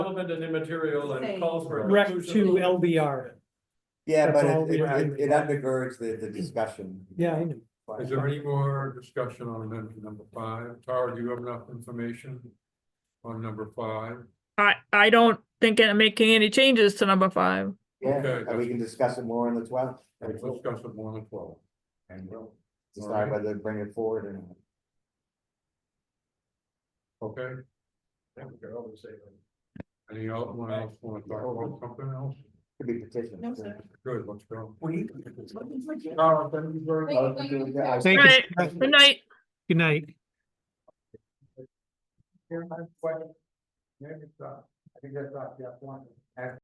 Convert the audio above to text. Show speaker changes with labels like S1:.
S1: relevant and immaterial and calls for. a
S2: Rec to
S1: conclusion.
S2: LBR,
S3: Yeah,
S2: That's
S3: but
S2: all
S3: it,
S2: we
S3: it,
S2: have.
S3: it- it undergirds the, the discussion.
S2: yeah, I know.
S1: Is there any more discussion on amendment number five? Tara, do you have enough information on number five?
S4: I, I don't think I'm making any changes to number five.
S3: Yeah,
S1: Okay.
S3: and we can discuss it more on the twelfth.
S1: Let's discuss it one and twelve.
S3: And we'll decide whether to bring it forward or not.
S1: Okay. Any else, one else wanna talk about something else?
S3: Could be petitioned.
S5: No, sir.
S1: Good, let's go.
S3: We-
S1: Tara, thank you very much.
S3: I'll have to do that. I was-
S2: Thank you.
S4: Right,
S3: Thank
S4: good night.
S2: Good night.
S1: uh,
S3: Here's my question. Maybe it's, uh, I think that's not the point.